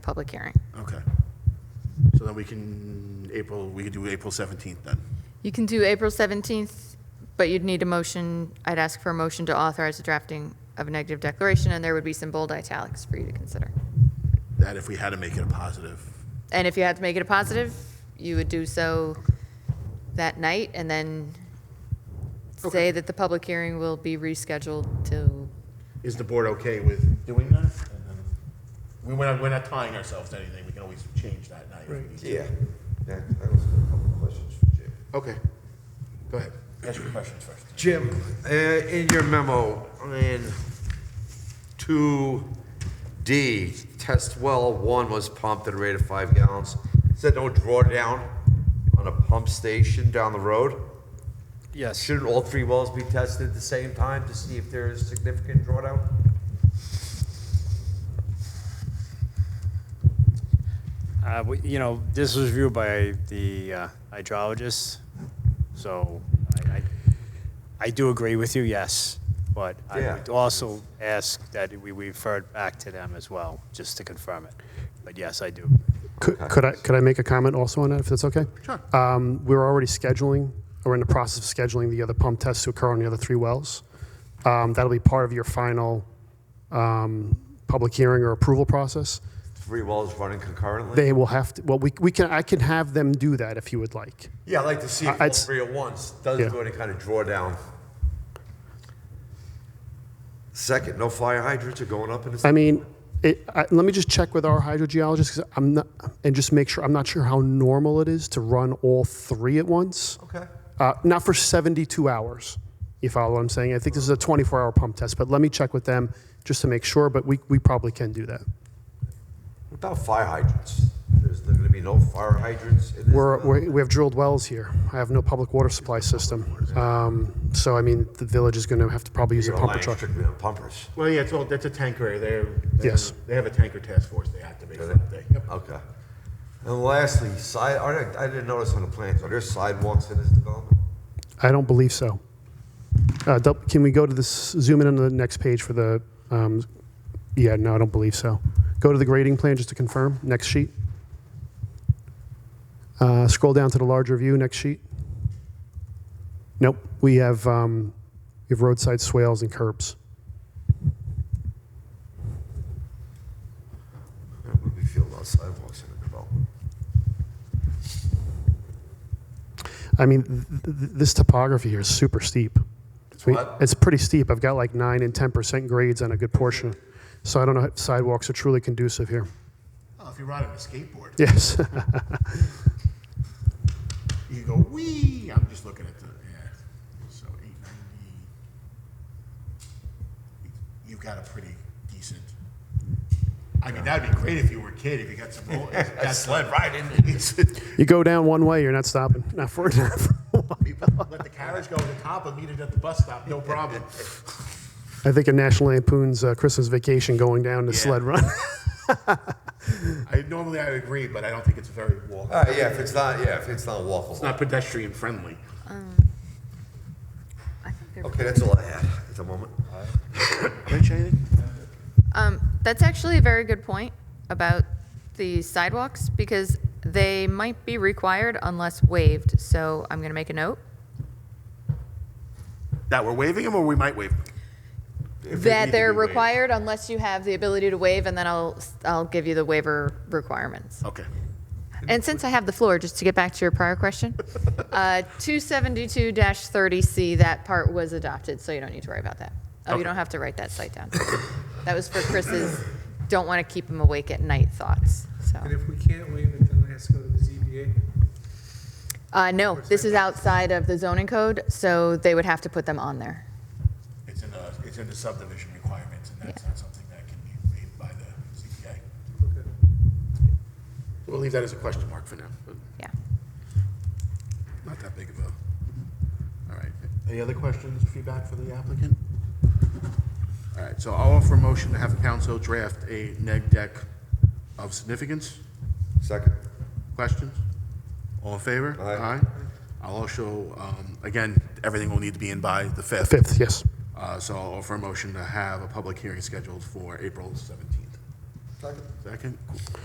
public hearing. Okay. So then we can, April, we could do April 17th then. You can do April 17th, but you'd need a motion, I'd ask for a motion to authorize the drafting of a negative declaration, and there would be some bold italics for you to consider. That if we had to make it a positive. And if you had to make it a positive, you would do so that night, and then say that the public hearing will be rescheduled to, Is the board okay with doing that? And then- We, we're not, we're not tying ourselves to anything. We can always change that night. if we need to. Yeah, that, that was a couple of questions for Jim. Okay. Go ahead. Ask your questions first. Jim, uh, in your memo, in two D, test well one was pumped at a rate of five gallons. Said no drawdown on a pump station down the road. Yes, Shouldn't all three wells be tested at the same time to see if there is significant drawdown? uh, we- you know, this was reviewed by the uh, hydrologist, so I, I- I do agree with you, yes, but I Yeah. would also ask that we refer it back to them as well, just to confirm it. But yes, I do. Could could I, could I make a comment also on that, if that's okay? Sure. Um, we're already scheduling, or in the process of scheduling the other pump tests to occur on the other three wells. Um, that'll be part of your final, um, public hearing or approval process. Three wells running concurrently? They will have to, well, we, we can, I can have them do that if you would like. Yeah, I'd like to see I- if all I'd s- three at once, Yeah. doesn't do any kind of drawdown. Second, no fire hydrants are going up in this. I mean, it, I, let me just check with our hydrogeologist, 'cause I'm not, and just make sure, I'm not sure how normal it is to run all three at once. Okay. Uh, not for 72 hours. You follow what I'm saying? I think this is a 24 hour pump test, but let me check with them just to make sure. But we, we probably can do that. What about fire hydrants? There's going to be no fire hydrants in this? We're, we we have drilled wells here. I have no public water supply system. Um, so, I mean, the village is going to have to probably use a You're pumper relying truck. strictly on pumpers. Well, yeah, it's all, that's a tanker. area. They're, they're- Yes. They have a tanker task force they activate for that day. Okay. And lastly, side, are there- I didn't notice on the plans, are there sidewalks in this development? I don't believe so. Uh, dou- can we go to this, zoom in on the next page for the, um, yeah, no, I don't believe so. Go to the grading plan just to confirm, next sheet. Uh, scroll down to the larger view, next sheet. Nope, we have, um, we have roadside swales and curbs. How would we feel about sidewalks in the development? I mean, th- th- this topography here is super steep. I mean, what? It's pretty steep. I've got like nine and 10% grades on a good portion. So I don't know if sidewalks are truly conducive here. Oh, if you ride on a skateboard, Yes. you go, wee, I'm just looking at the, yeah. So 890, you've got a pretty decent, I mean, that'd be great if you were a kid, if you got some, roll- that sled riding. You go down one way, you're not stopping. Not for, not for a while. Let the carriage go to the top and meet it at the bus stop, no problem. I think a National Lampoon's uh, Christmas Vacation going down to Yeah. Sled Run. I, normally I agree, but I don't think it's very walk. Uh, yeah, if it's not, yeah, if it's not It's walkable. not pedestrian friendly. I think they're- Okay, that's all I had at the moment. Rich, anything? Um, that's actually a very good point about the sidewalks, because they might be required unless waived, so I'm gonna make a note. That we're waiving them or we might waive them? If they need That to they're be waived. required unless you have the ability to waive, and then I'll, I'll give you the waiver requirements. Okay. And since I have the floor, just to get back to your prior question, uh, 272-30C, that part was adopted, so you don't need to worry about that. Oh, you Okay. don't have to write that site down. That was for Chris's, don't want to keep him awake at night thoughts, so. And if we can't waive it, then it has to go to the ZBA. Uh, no, this is outside of the zoning code, so they would have to put them on there. It's in the, it's in the subdivision requirements, and that's Yeah. not something that can be waived by the ZBA. Okay. We'll leave that as a question mark for now, but Yeah. not that big of a, all right. Any other questions, feedback for the applicant? All right, so I'll offer a motion to have council draft a neg deck of significance. Second. Questions? All in favor? Aye. I'll also, um, again, everything will need to be in by the 5th. Fifth, yes. Uh, So I'll offer a motion to have a public hearing scheduled for April 17th. Second. Second?